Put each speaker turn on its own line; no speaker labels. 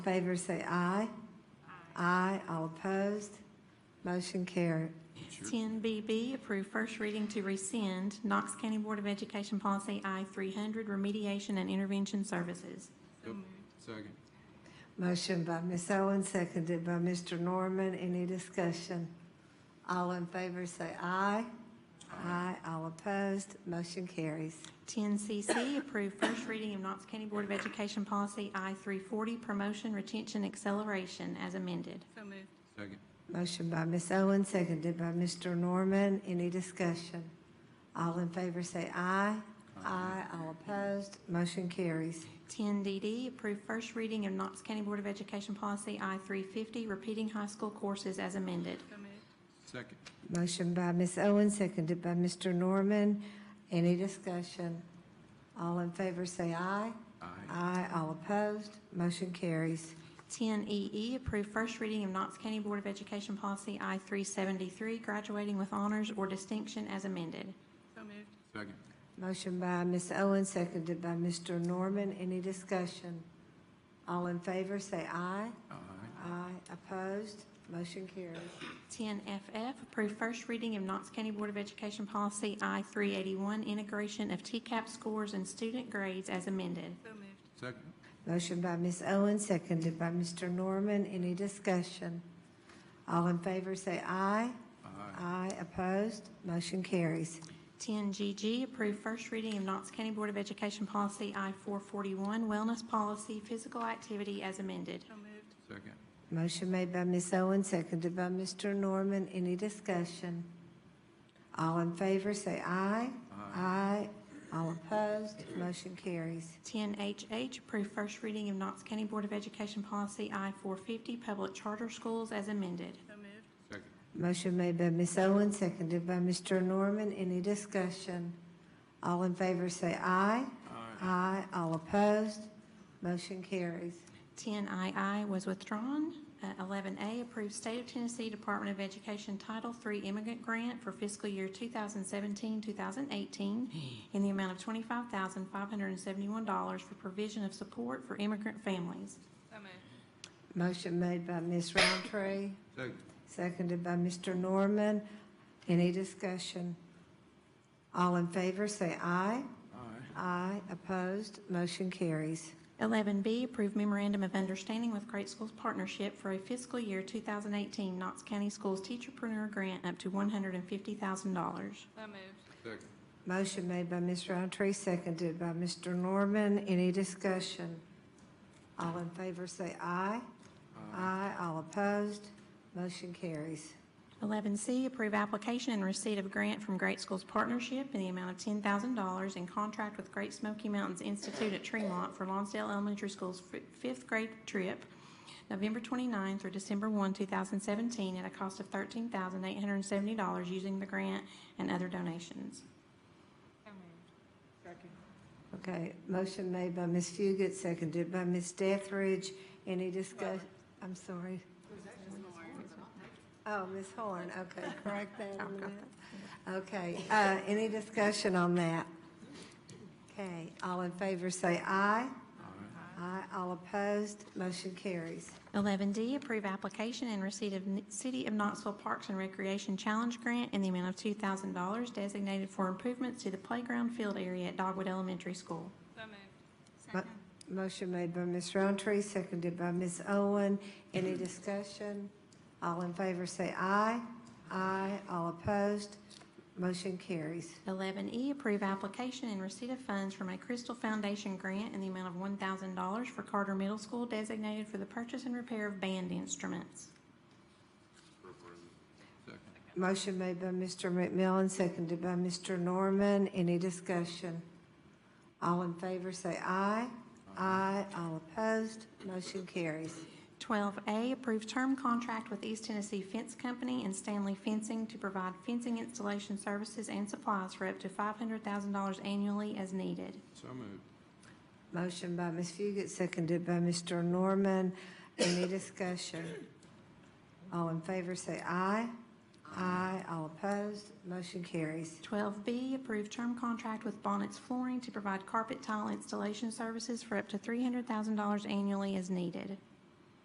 Favor say aye. Aye. all opposed. Motion carried.
10BB, approve first reading to rescind Knox County Board of Education Policy I-300 Remediation and Intervention Services.
Second.
Motion by Ms. Owen, seconded by Mr. Norman. Any discussion? All in favor say aye. Aye. all opposed. Motion carries.
10CC, approve first reading of Knox County Board of Education Policy I-340 Promotion, Retention, Acceleration as amended.
So moved.
Second.
Motion by Ms. Owen, seconded by Mr. Norman. Any discussion? All in favor say aye. Aye. all opposed. Motion carries.
10DD, approve first reading of Knox County Board of Education Policy I-350 Repeating High School Courses as amended.
So moved.
Second.
Motion by Ms. Owen, seconded by Mr. Norman. Any discussion? All in favor say aye.
Aye.
Aye, all opposed. Motion carries.
10EE, E approve first reading of Knox County Board of Education Policy I-373 Graduating with Honors or Distinction as amended.
So moved.
Second.
Motion by Ms. Owen, seconded by Mr. Norman. Any discussion? All in favor say aye.
Aye.
Aye, opposed. Motion carries.
10FF, approve first reading of Knox County Board of Education Policy I-381, integration of TCAP scores and student grades as amended.
So moved.
Second.
Motion by Ms. Owen, seconded by Mr. Norman. Any discussion? All in favor say aye.
Aye.
Aye, opposed. Motion carries.
10GG, approve first reading of Knox County Board of Education Policy I-441, wellness policy, physical activity as amended.
So moved.
Second.
Motion made by Ms. Owen, seconded by Mr. Norman. Any discussion? All in favor, say aye. Aye. All opposed, motion carries.
10HH, approve first reading of Knox County Board of Education Policy I-450, public charter schools as amended.
So moved.
Second.
Motion made by Ms. Owen, seconded by Mr. Norman. Any discussion? All in favor, say aye.
Aye.
Aye. All opposed, motion carries.
10II was withdrawn. Uh, 11A, approved State of Tennessee Department of Education Title III Immigrant Grant for fiscal year 2017-2018 in the amount of $25,571 for provision of support for immigrant families.
So moved.
Motion made by Ms. Roundtree,
Second.
Seconded by Mr. Norman. Any discussion? All in favor, say aye.
Aye.
Aye. Opposed? Motion carries.
11B, approved memorandum of understanding with Great Schools Partnership for a fiscal year 2018 Knox County Schools Teacherpreneur Grant up to $150,000.
So moved.
Second.
Motion made by Ms. Roundtree, seconded by Mr. Norman. Any discussion? All in favor, say aye. Aye. All opposed? Motion carries.
11C, approve application and receipt of grant from Great Schools Partnership in the amount of $10,000 in contract with Great Smoky Mountains Institute at Tremont for Lonsdale Elementary School's fi- fifth grade trip, November 29 through December 1, 2017, at a cost of $13,870 using the grant and other donations.
So moved. Second.
Okay, motion made by Ms. Fugit, seconded by Ms. Dethridge. Any discuss, I'm sorry. Oh, Ms. Horn, okay, correct that on the map. Okay, uh, any discussion on that? Okay, all in favor say aye.
Aye.
Aye, all opposed, motion carries.
11D, approve application and receipt of N- City of Knoxville Parks and Recreation Challenge Grant in the amount of $2,000 designated for improvements to the playground field area at Dogwood Elementary School.
So moved.
Mo- Motion made by Ms. Roundtree, seconded by Ms. Owen. Any discussion? All in favor say aye. Aye, all opposed, motion carries.
11E, E, approve application and receipt of funds from a Crystal Foundation grant in the amount of $1,000 for Carter Middle School designated for the purchase and repair of band instruments.
Second.
Motion made by Mr. McMillan, seconded by Mr. Norman. Any discussion? All in favor say aye. Aye. All opposed, motion carries.
12A, approve term contract with East Tennessee Fence Company and Stanley Fencing to provide fencing installation services and supplies for up to $500,000 annually as needed.
So moved.
Motion by Ms. Fugit, seconded by Mr. Norman. Any discussion? All in favor say aye. Aye. All opposed, motion carries.
12B, approve term contract with Bonnet's Flooring to provide carpet tile installation services for up to $300,000 annually as needed.